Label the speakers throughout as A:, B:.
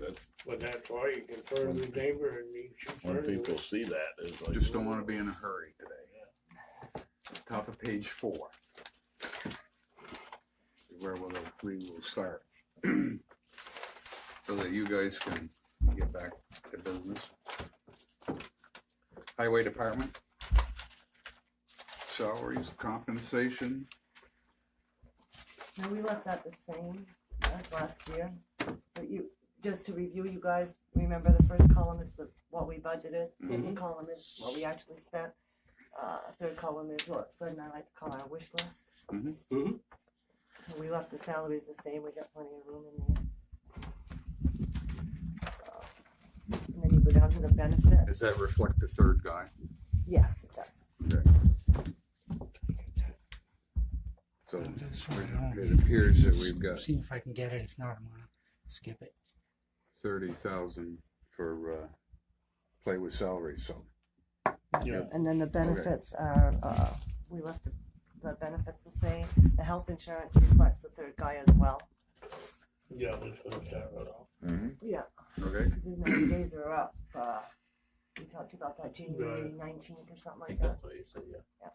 A: that's,
B: But that's why you can turn the neighbor and you should
A: when
B: turn
A: people
B: it.
A: see that, it's like.
C: Just don't wanna be in a hurry today. Top of page four. Where we'll, we will start. So that you guys can get back to business. Highway Department. Salaries, compensation,
D: Now, we left that the same as last year, but you, just to review, you guys, remember the first column is the, what we budgeted, second column is what we actually spent. Uh, third column is what Fred and I like to call our wish list. Mm-hmm.
C: Mhm.
B: Mhm.
D: So we left the salaries the same, we got plenty of room in there. Uh, And then you go down to the benefit,
C: does that reflect the third guy?
D: yes, it does.
C: So
E: Do this one at home.
C: it appears that we've got
E: See if I can get it. If not, I'm gonna skip it.
C: thirty thousand for, uh, play with salary, so.
A: Yeah.
D: And then the benefits are, uh, we left the, the benefits the same, the health insurance reflects the third guy as well.
B: Yeah, I was gonna start it off.
A: Mhm.
D: Yeah,
C: Okay,
D: because his ninety days are up, uh, we talked about that January
B: Right.
D: nineteenth or something
B: I
D: like
B: think
D: that.
B: that's what you said, yeah.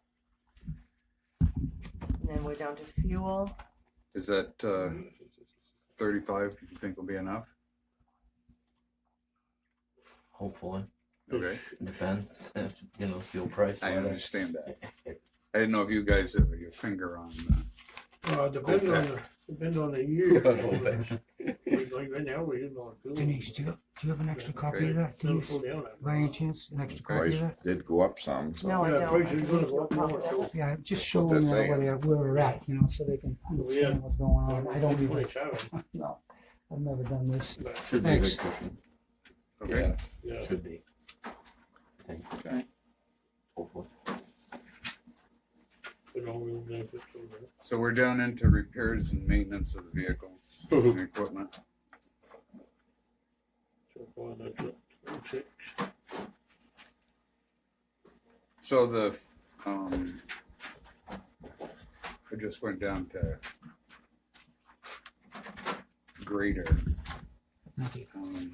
D: And then we're down to fuel,
C: is that,
A: Mm-hmm.
C: uh, thirty-five, you think will be enough?
F: Hopefully,
C: Okay,
F: depends if you know fuel price.
C: I
F: whether-
C: understand that. I didn't know if you guys have your finger on, uh,
B: Well, depend on the, depend on the year.
F: Hopefully.
B: Like right now, we're using on fuel.
E: Denise, do you, do you have an extra copy of that?
B: It'll
E: Denise,
B: cool down. after a
E: by any
B: while.
E: chance, an extra copy
A: Price
E: of that?
A: did go up some, so.
D: no, I
B: Yeah,
D: don't. I
B: prices
D: can
B: gonna
D: make
B: go
D: no
B: up more,
D: comment on
B: so-
D: it.
E: Yeah, just show
C: That's
E: them
C: it.
E: where, they- where we're at, you know, so they can
B: Yeah.
E: understand what's
D: Um,
E: going on. Um, I don't even,
B: Twenty-seven,
E: no, I've never done this.
B: but,
F: Should be a
E: Thanks.
F: good cushion.
C: okay?
B: yeah.
F: Should be. Thank you.
C: Okay.
F: Hopefully.
B: we don't really make it too much.
C: So we're down into repairs and maintenance of the vehicles
A: Mm-hmm.
C: and equipment.
B: So far, that's it. That's it.
C: So the, um, I just went down to grader.
E: Thank you.
C: Um,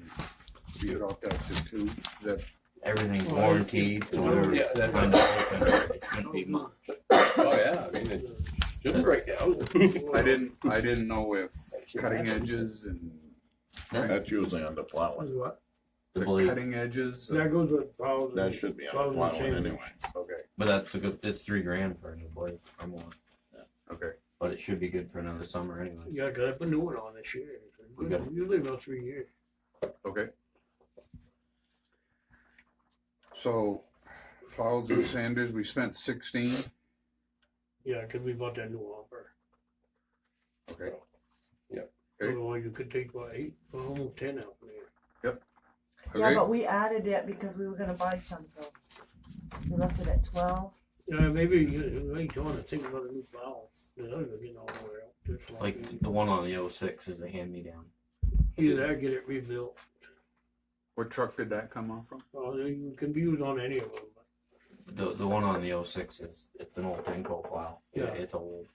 C: You dropped out to two, is that
F: Everything's
B: Well,
F: warranted. so
B: well,
F: we're-
A: yeah, that's-
F: when it's open, It shouldn't be much.
A: Oh, yeah, I mean, it should break down.
C: I didn't, I didn't know if cutting edges and
A: That's usually on the plowing.
B: Is what?
F: The
C: the
F: blade,
C: cutting edges.
B: That goes with pounds.
A: That should be on the plowing anyway.
C: Okay,
F: but that's a good, it's three grand for a new blade or more,
C: okay.
F: but it should be good for another summer anyway.
B: Yeah, cause I put new one on this year.
F: We got-
B: Usually about three years.
C: Okay. So plows and sanders, we spent sixteen.
B: Yeah, cause we bought that new offer.
C: Okay, Okay.
B: Otherwise, you could take what, eight, well, almost ten out there.
D: Yeah,
C: okay,
D: but we added it because we were gonna buy something. We left it at twelve,
B: Yeah, maybe you, you don't wanna think about a new valve. The other one, you know, where else. Just
F: Like
C: oh.
F: the one on the O six is a hand me down.
B: Either that, or get it rebuilt.
C: what truck did that come off from?
B: Well, you can be used on any of them. but-
F: The, the one on the O six is, it's an old Tenco plow.
B: Yeah.
F: It's old.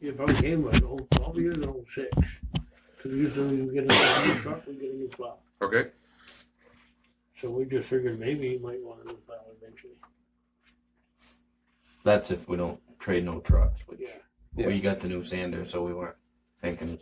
B: Yeah, probably came with an old, probably is an old six. Cause usually you get a new truck, we get a new plow.
C: Okay,
B: So we just figured maybe you might want a new plow eventually.
F: That's if we don't trade no trucks, which
B: Yeah.
F: we got the new sander, so we weren't thinking